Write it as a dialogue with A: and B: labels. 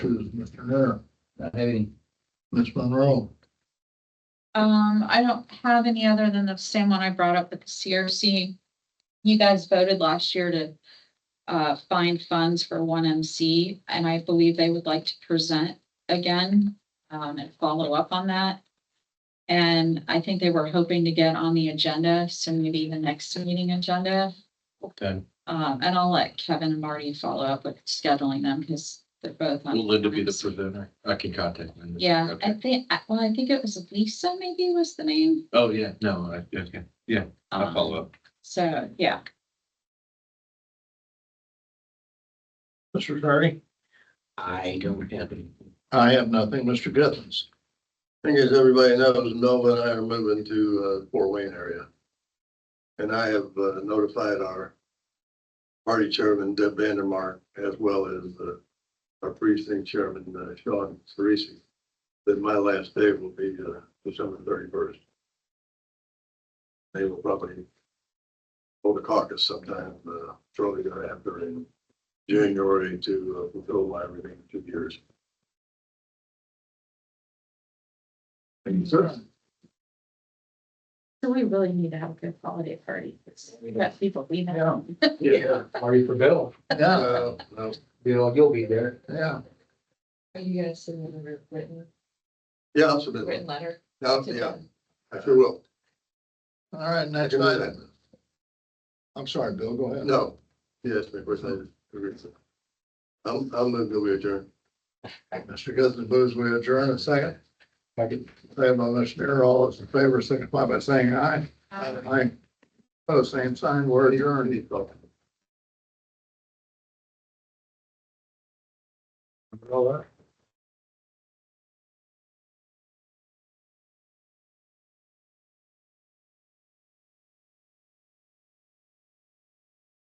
A: is Mr. Hare,
B: Not have any.
A: Ms. Monroe.
C: Um, I don't have any other than the same one I brought up with the CRC. You guys voted last year to uh, find funds for one MC, and I believe they would like to present again um, and follow up on that. And I think they were hoping to get on the agenda, so maybe the next meeting agenda.
D: Okay,
C: Um, and I'll let Kevin and Marty follow up with scheduling them because they're both. on
D: will Linda be the
C: times.
D: presenter? I can contact Linda.
C: Yeah, I
D: Okay.
C: think, I- well, I think it was Lisa maybe was the name.
D: Oh, yeah, no, I, okay, I'll
C: Um,
D: follow up.
C: So, yeah,
A: Mr. Tardy?
B: I don't have any.
A: I have nothing. Mr. Githens?
E: Thing is, everybody knows Nova and I are moving to uh Fort Wayne area. And I have uh, notified our party chairman Deb Vandermark as well as uh, our precinct chairman uh, Sean Cerisi that my last day will be uh, December thirty-first. They will probably hold a caucus sometime uh, shortly thereafter in January to uh, fulfill my remaining two years. Thank you, sir.
C: so we really need to have a good holiday party. because We've got people we know.
A: Yeah.
B: Marty for Bill,
A: Yeah,
E: Uh, no.
B: you know, you'll be there.
A: yeah.
F: Are you gonna send them a written,
E: Yeah, I'll submit.
F: written letter?
E: Yeah,
F: to
E: yeah,
F: them?
E: I sure will.
A: All right,
E: I
A: next
E: can do
A: item.
E: that.
A: I'm sorry, Bill, go ahead.
E: No, yes, of course, I agree. I'm, I'm moving to adjourn.
A: Mr. Githens moves we adjourn a second. Second. Second by Mr. Hare. All those in favor signify by saying aye. Aye. Oh, same sign. We're adjourned. Well,